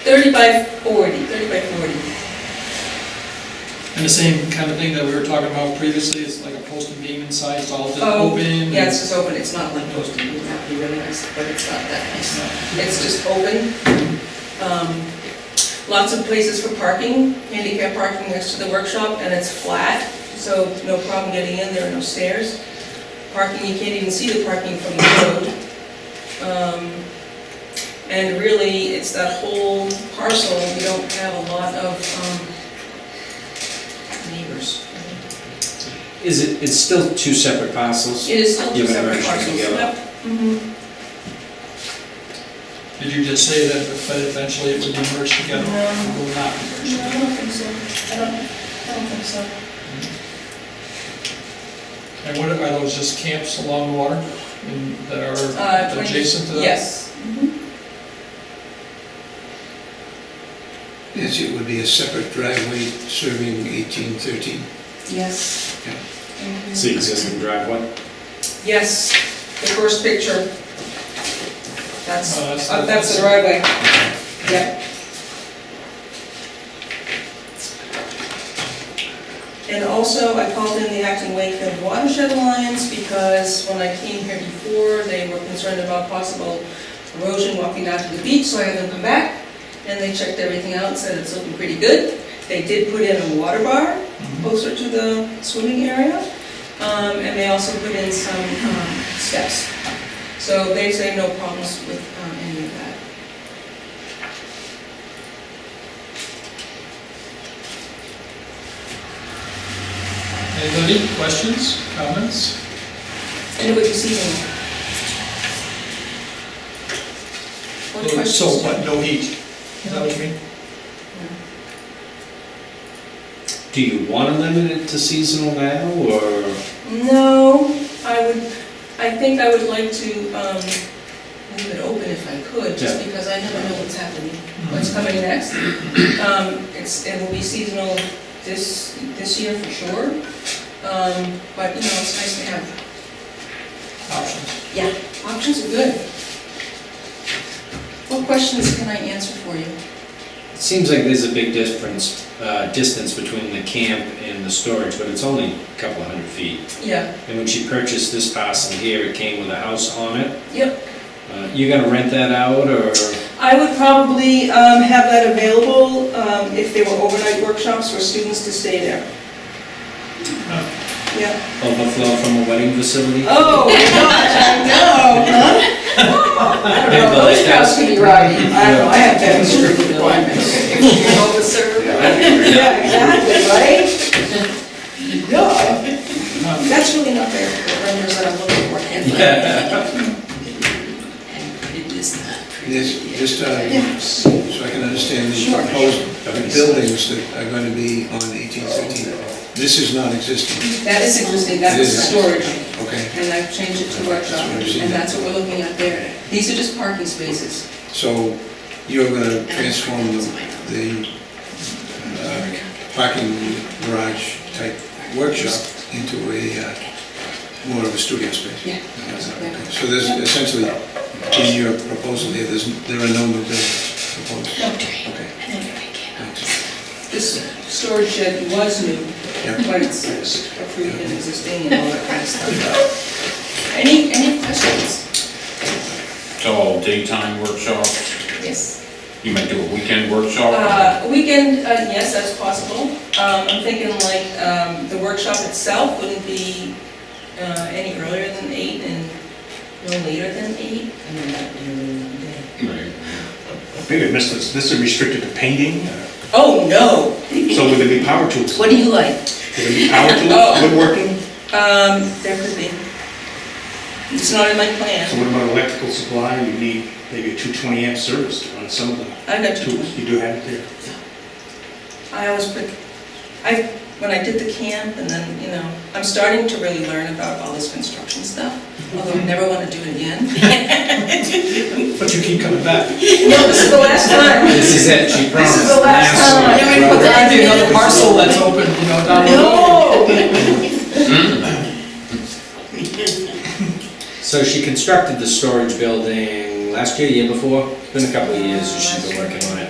Thirty by forty, thirty by forty. And the same kind of thing that we were talking about previously, it's like a posted beam inside, it's all just Oh, open. and- Yeah, it's just open, it's not like posted, that'd be really nice, but it's not that nice. It's just open. Um, Lots of places for parking, handicap parking next to the workshop, and it's flat, so no problem getting in, there are no stairs. Parking, you can't even see the parking from the road. Um, And really, it's that whole parcel, we don't have a lot of um, neighbors. Is it, it's still two separate parcels? It is still two Given separate everything parcels, together. yep. Mhm. Did you just say that, but eventually it would be merged together? No. It Will not be merged No, I together. don't think so. I don't, I don't think so. And what, are those just camps along the water in- Uh, that are 20 adjacent to that? Yes. Yes, it would be a separate driveway serving 1813. Yes. Mm-hmm. Yeah. It's the existing driveway? Yes, the first picture. That's, Oh, that's uh, the- that's the driveway. Yep. And also, I called in the Acton Wakefield Watershed Alliance because when I came here before, they were concerned about possible erosion walking down to the beach, so I had them come back. And they checked everything out and said it's looking pretty good. They did put in a water bar closer to the swimming area. Um, and they also put in some, um, steps. So they say no problems with, um, any of that. Anybody, questions, comments? And what you see them? What questions? So, what, no heat? Is that what you mean? Do you want to limit it to seasonal now, or? No, I would, I think I would like to, um, leave it open if I could, just Yeah. because I never know what's happening, what's coming next. Um, it's, it will be seasonal this, this year for sure, um, but, you know, it's nice to have. Mm-hmm. Options. Yeah. Options are good. What questions can I answer for you? It seems like there's a big difference, uh, distance between the camp and the storage, but it's only a couple of hundred feet. Yeah, And when she purchased this parcel here, it came with a house on it. yep, Uh, You gonna rent that out, or? I would probably um, have that available um, if there were overnight workshops for students to stay there. Oh. Yeah. Overflow from a wedding facility? Oh, gosh, I know, huh? I don't know, those cows can be rowdy. I don't know, I have that strict requirements. You're Yeah, exactly, right? No, Um, that's really not the the renders that I'm looking for. Yeah. It is not This, this time, Yes. uh, so I can understand the Sure. proposed uh, buildings that are going to be on 1813. This is not existing, That is existing, that was storage. okay? and I've changed it to workshop, and that's what we're looking at there. These are just parking spaces. So you're going to transform the the uh, parking garage type workshop into a, uh, more of a studio space? Yeah. Okay. So there's essentially, in your proposal here, there's, there are no new buildings proposed? No. Okay, thanks. This storage shed was new, Yeah. but it's approved and existing and all that kind of stuff. Any, any questions? It's all daytime workshops. Yes. You might do a weekend workshop. Uh, weekend, uh, yes, that's possible. Um, I'm thinking like, um, the workshop itself wouldn't be, uh, any earlier than eight and no later than eight. I mean, that would be really long day. Right. Maybe I missed this, this is restricted to painting, uh, Oh, no. so would there be power tools? What Would do you like? there be power Oh. tools, woodworking? Um, there could be. It's not in my So plan. what about electrical supply, you need maybe a 220 amp service to run some of the I've got two. tools, you do have it there. I always put, I, when I did the camp and then, you know, I'm starting to really learn about all this construction stuff, although I never want to do it again. But you keep coming back. No, this is the last time. This is it, she promised. is the last time. Yeah, we put that in another parcel that's open, you know, down the road. No! So she constructed the storage building last year, year before? It's been a couple of years that she's been working on it.